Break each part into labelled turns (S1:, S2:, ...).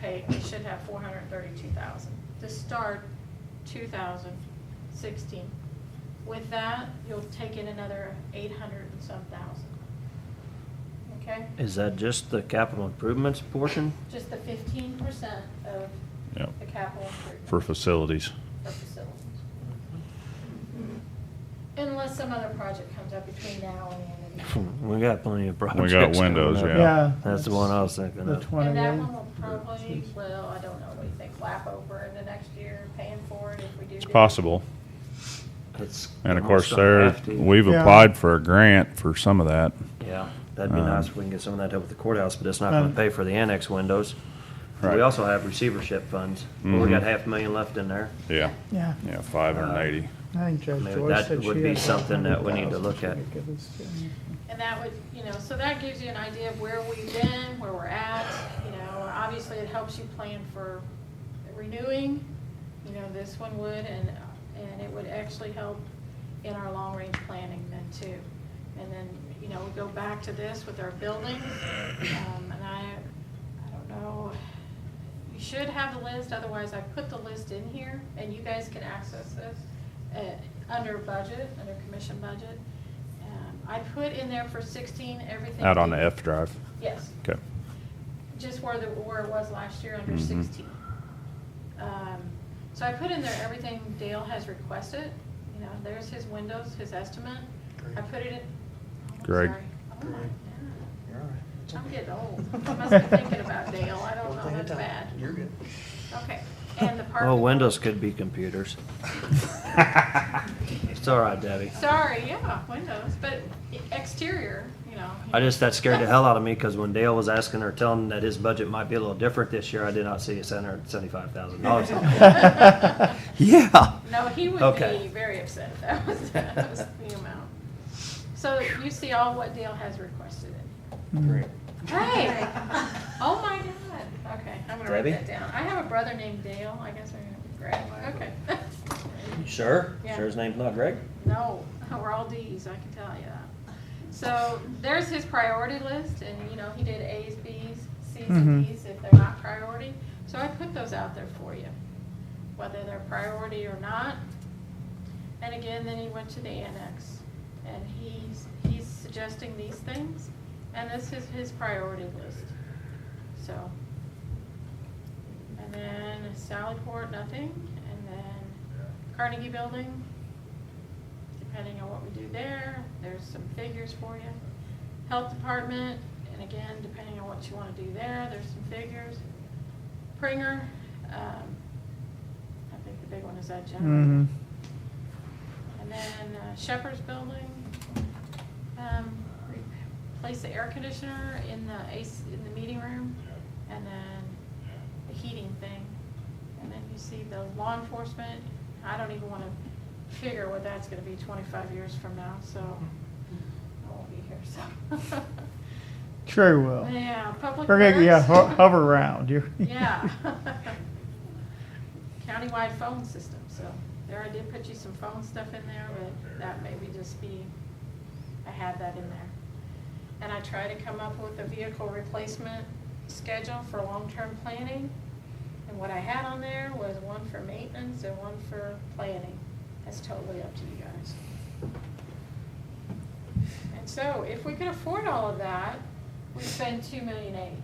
S1: paid, we should have four hundred and thirty-two thousand to start two thousand sixteen. With that, you'll take in another eight hundred and some thousand. Okay?
S2: Is that just the capital improvements portion?
S1: Just the fifteen percent of
S3: Yep.
S1: the capital improvement.
S3: for facilities.
S1: for facilities. Unless some other project comes up between now and then.
S2: We got plenty of projects.
S3: got
S2: coming
S3: windows,
S2: up.
S3: Yeah.
S4: Yeah.
S2: That's the one I was thinking
S4: The
S2: of.
S1: And that one will
S4: 28.
S1: probably, well, I don't know, what do you think, lap over in the next year, paying for it if we do.
S3: It's
S1: do it?
S3: possible.
S2: It's
S3: And of
S2: almost
S3: course,
S2: gonna
S3: there,
S2: have to.
S3: we've
S4: Yeah.
S3: applied for a grant for some of that.
S2: Yeah, that'd be
S3: Um,
S2: nice if we can get some of that help with the courthouse, but it's not gonna
S4: Um,
S2: pay for the annex windows.
S3: Right.
S2: We also have receivership funds. We
S3: Mhm.
S2: got half a million left in there.
S3: Yeah,
S4: Yeah,
S3: yeah, five hundred and eighty.
S4: I think Judge
S2: Maybe
S4: Joy
S2: that
S4: said
S2: would
S4: she
S2: be
S4: had
S2: something that we need to
S4: 100,000
S2: look at.
S4: to give us to-
S1: And that would, you know, so that gives you an idea of where we've been, where we're at, you know, obviously it helps you plan for renewing, you know, this one would, and, and it would actually help in our long-range planning then too. And then, you know, we go back to this with our buildings, um, and I, I don't know, you should have the list, otherwise I put the list in here, and you guys can access this, uh, under budget, under commission budget. Um, I put in there for sixteen, everything.
S3: Out on the F drive.
S1: Yes,
S3: Okay.
S1: just where the, where it was last year, under
S3: Mhm.
S1: sixteen. Um, So I put in there everything Dale has requested, you know, there's his windows, his estimate, I put it in. oh, I'm
S3: Greg.
S1: sorry. Oh, my
S5: Greg.
S1: God.
S5: You're all right. It's
S1: I'm
S5: okay.
S1: getting old. I must be thinking about Dale. I don't
S5: One
S1: know.
S5: thing at a
S1: That's
S5: time.
S1: bad.
S5: You're good.
S1: Okay, and the parking.
S2: Well, Oh, windows could be computers. It's all right, Debbie.
S1: Sorry, yeah, windows, but e-, exterior, you know.
S2: I just, that scared the hell out of me, because when Dale was asking or telling that his budget might be a little different this year, I did not see a seven hundred seventy-five thousand dollars. Yeah.
S1: No, he would
S2: Okay.
S1: be very upset. That was, that was the amount. So you see all what Dale has requested in
S2: Mm.
S4: Mm-hmm.
S5: Great.
S1: here. Hey, oh my God. Okay, I'm gonna write
S2: Debbie?
S1: that down. I have a brother named Dale. I guess we're gonna be Greg. Okay.
S2: Sure?
S1: Yeah.
S2: Sure his name's not Greg?
S1: No, we're all Ds, I can tell you that. So there's his priority list, and you know, he did As, Bs, Cs, and
S4: Mhm.
S1: Ds if they're not priority. So I put those out there for you, whether they're priority or not. And again, then he went to the annex, and he's, he's suggesting these things, and this is his priority list, so. And then Sallyport, nothing, and then Carnegie Building, depending on what we do there, there's some figures for you. Health Department, and again, depending on what you wanna do there, there's some figures. Pringer, um, I think the big one is that generator.
S4: Mhm.
S1: And then uh, Shepherd's Building, um, replace the air conditioner in the AC, in the meeting room, and then the heating thing. And then you see the law enforcement, I don't even wanna figure what that's gonna be twenty-five years from now, so I won't be here, so.
S4: Sure will.
S1: Yeah, public
S4: We're gonna, yeah, ho-
S1: works.
S4: hover around. You're-
S1: Yeah. Countywide phone system, so there I did put you some phone stuff in there, but that maybe just be, I had that in there. And I try to come up with a vehicle replacement schedule for long-term planning. And what I had on there was one for maintenance and one for planning. That's totally up to you guys. And so if we could afford all of that, we spend two million eight.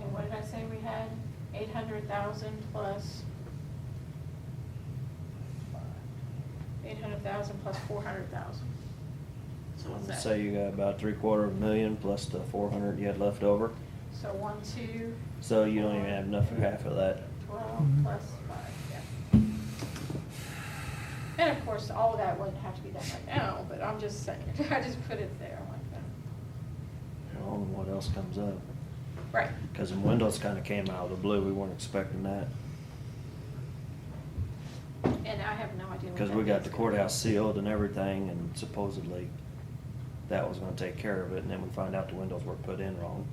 S1: And what did I say we had? Eight hundred thousand plus. Eight hundred thousand plus four hundred thousand. So what's that?
S2: So you got about three quarter of a million plus the four hundred you had left over,
S1: So one, two,
S2: so you don't even have enough for half of that.
S1: twelve
S4: Mhm.
S1: plus five, yeah. And of course, all of that wouldn't have to be done right now, but I'm just saying, I just put it there like that.
S2: On what else comes up,
S1: Right,
S2: because the windows kinda came out of the blue, we weren't expecting that.
S1: and I have no idea what
S2: Because
S1: that
S2: we got
S1: means.
S2: the courthouse sealed and everything, and supposedly that was gonna take care of it, and then we find out the windows were put in wrong.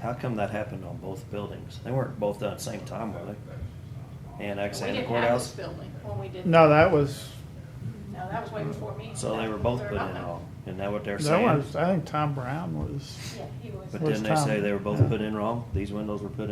S2: How come that happened on both buildings? They weren't both done at the same time, were they? Annex
S1: We
S2: and the
S1: didn't have this
S2: courthouse?
S1: building when we did.
S4: No, that was,
S1: No, that was way before me.
S2: So they were both
S1: They're
S2: put in
S1: not.
S2: wrong, isn't that what they're
S4: that
S2: saying?
S4: was, I think Tom Brown was.
S1: Yeah, he was.
S2: But
S4: was
S2: didn't they say
S4: Tom.
S2: they were both
S4: Yeah.
S2: put in wrong? These windows were put